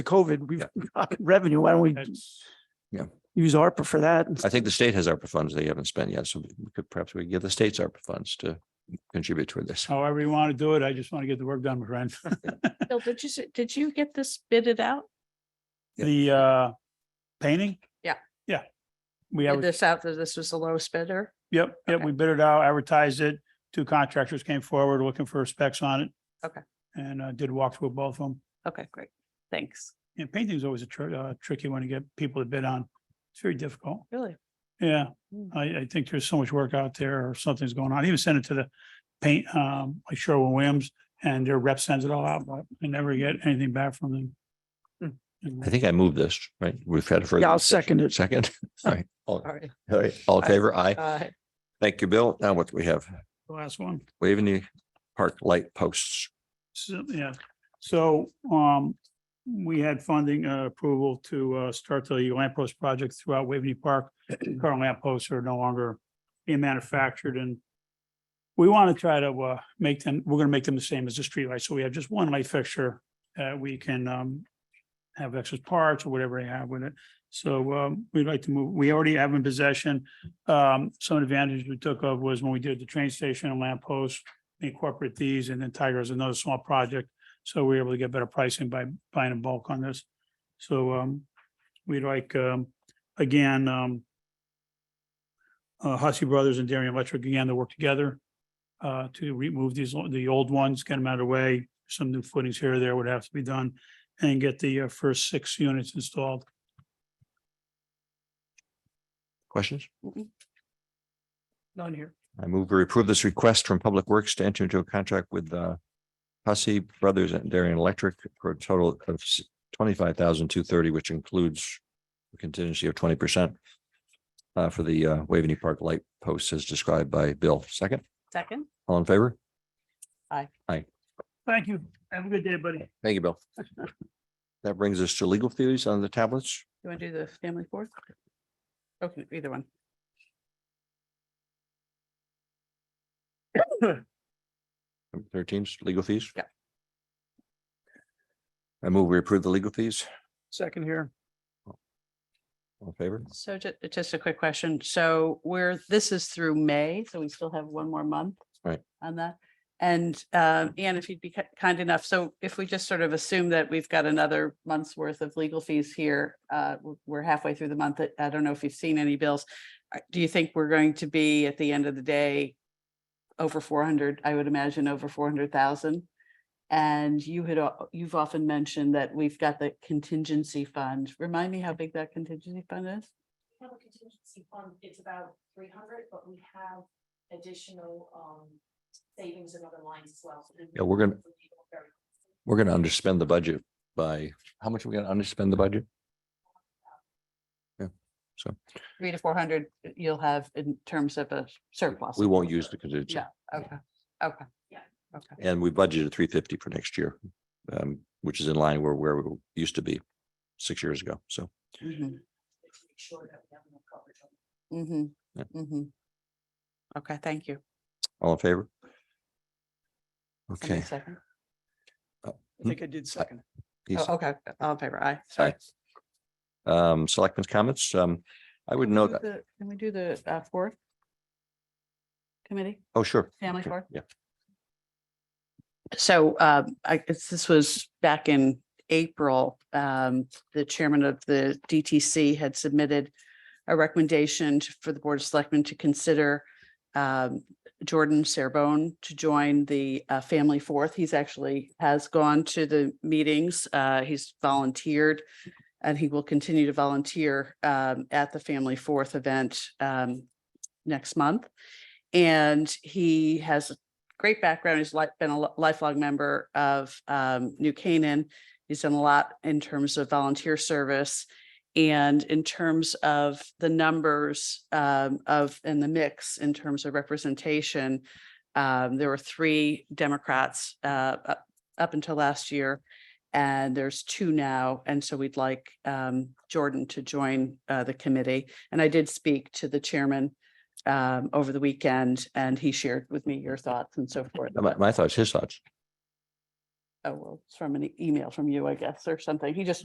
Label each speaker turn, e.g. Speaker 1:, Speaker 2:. Speaker 1: COVID, we've got revenue. Why don't we
Speaker 2: That's,
Speaker 1: use ARPA for that?
Speaker 3: I think the state has ARPA funds they haven't spent yet, so we could, perhaps we could give the state's ARPA funds to contribute toward this.
Speaker 2: however you want to do it. I just want to get the work done, my friend.
Speaker 4: Bill, did you, s- did you get this bidded out?
Speaker 3: Yeah.
Speaker 2: The uh, painting?
Speaker 4: Yeah.
Speaker 2: Yeah. We
Speaker 4: Did
Speaker 2: have,
Speaker 4: this out, that this was the lowest bidder?
Speaker 2: yep, yep,
Speaker 4: okay.
Speaker 2: we bid it out, advertised it. Two contractors came forward looking for specs on it.
Speaker 4: Okay.
Speaker 2: And uh, did walk through both of them.
Speaker 4: Okay, great. Thanks.
Speaker 2: And painting's always a tr- uh, tricky one to get people to bid on. It's very difficult.
Speaker 4: Really?
Speaker 2: Yeah,
Speaker 4: Mm.
Speaker 2: I, I think there's so much work out there or something's going on. I Even send it to the paint, um, like Sherwin Williams and their rep sends it all out, but I never get anything back from them. You know.
Speaker 3: I think I moved this, right? We've had a further.
Speaker 1: Yeah, I'll
Speaker 3: discussion.
Speaker 1: second it.
Speaker 3: Second. All right. All
Speaker 4: All right.
Speaker 3: all right. All in
Speaker 4: Aye.
Speaker 3: favor? Aye.
Speaker 4: Uh,
Speaker 3: Thank you, Bill. Now what do we have?
Speaker 2: The last one.
Speaker 3: Waving the park light posts.
Speaker 2: So, yeah, so, um, we had funding uh, approval to, uh, start the lamp post project throughout Waveney Park. Current lamp posts are no longer being manufactured and we want to try to, uh, make them, we're gonna make them the same as the streetlight. So we have just one light fixture that we can, um, have excess parts or whatever they have with it. So, um, we'd like to move, we already have in possession. Um, some advantage we took of was when we did the train station and lamp posts, incorporate these and then Tiger is another small project. So we we're able to get better pricing by buying in bulk on this. So um, we'd like, um, again, um. Uh, Hussey Brothers and Darian Electric again to work together. Uh, to remove these, o- the old ones, get them out of the way. Some new footings here or there would have to be done and get the uh, first six units installed.
Speaker 3: Questions?
Speaker 2: None here.
Speaker 3: I move to approve this request from Public Works to enter into a contract with uh Hussey Brothers and Darian Electric for a total of twenty-five thousand two thirty, which includes a contingency of twenty percent uh, for the uh, Waveney Park light posts as described by Bill. Second,
Speaker 4: Second?
Speaker 3: all in favor?
Speaker 2: Thank you. Have a good day, buddy.
Speaker 3: Thank you, Bill. That brings us to legal theories on the tablets.
Speaker 4: You want to do the family fourth? Okay, either one.
Speaker 3: Number Thirteen's legal fees.
Speaker 4: Yeah.
Speaker 3: I move we approve the legal fees.
Speaker 2: Second here.
Speaker 3: All in favor?
Speaker 4: So ju- just a quick question. So we're, this is through May, so we still have one more month.
Speaker 3: Right.
Speaker 4: On that. And um, Ann, if you'd be ki- kind enough, so if we just sort of assume that we've got another month's worth of legal fees here, uh, w- we're halfway through the month. I- I don't know if you've seen any bills. Uh, Do you think we're going to be at the end of the day over four hundred, I would imagine over four hundred thousand? And you had, al- you've often mentioned that we've got the contingency fund. Remind me how big that contingency fund is?
Speaker 5: We have a contingency fund, it's about three hundred, but we have additional um savings in other lines as well. So we-
Speaker 3: Yeah, we're gonna- We're gonna underspend the budget by, how much are we gonna underspend the budget? Yeah, so
Speaker 4: three to four hundred uh, you'll have in terms of a surplus.
Speaker 3: we won't use the contingency
Speaker 4: Yeah, okay, okay.
Speaker 5: Yeah.
Speaker 4: Okay,
Speaker 3: and we budgeted three fifty for next year. Um, which is in line where where we used to be six years ago. So
Speaker 4: mhm,
Speaker 5: Make sure that we have enough coverage
Speaker 4: mhm,
Speaker 5: on
Speaker 3: Yeah.
Speaker 4: mhm. Okay, thank you.
Speaker 3: all in favor?
Speaker 4: Somebody
Speaker 3: Okay,
Speaker 4: second?
Speaker 3: I think
Speaker 2: I did
Speaker 3: second
Speaker 4: Oh, oh.
Speaker 3: he's-
Speaker 4: Okay, all in favor, aye, sorry.
Speaker 3: um, selectmen's comments. Um, I would
Speaker 4: Do
Speaker 3: note,
Speaker 4: the- Can we do the uh, fourth? Committee?
Speaker 3: oh, sure.
Speaker 4: Family
Speaker 3: Sure.
Speaker 4: court?
Speaker 3: Yeah.
Speaker 4: So um, I guess this was back in April. um, The chairman of the DTC had submitted a recommendation to- for the Board of Selectmen to consider um, Jordan Serbone to join the uh, Family Fourth. He's actually has gone to the meetings. uh, He's volunteered and he will continue to volunteer um, at the Family Fourth event um, next month. And he has a great background. He's like been a lo- lifelong member of um, New Canaan. He's done a lot in terms of volunteer service. And in terms of the numbers um, of and the mix in terms of representation, um, there were three Democrats uh, up, up until last year. And there's two now. And so we'd like um, Jordan to join uh, the committee. And I did speak to the chairman um, over the weekend and he shared with me your thoughts and so forth.
Speaker 3: My, my thoughts, his thoughts.
Speaker 4: Oh, well, it's from an e- email from you, I guess, or something. He just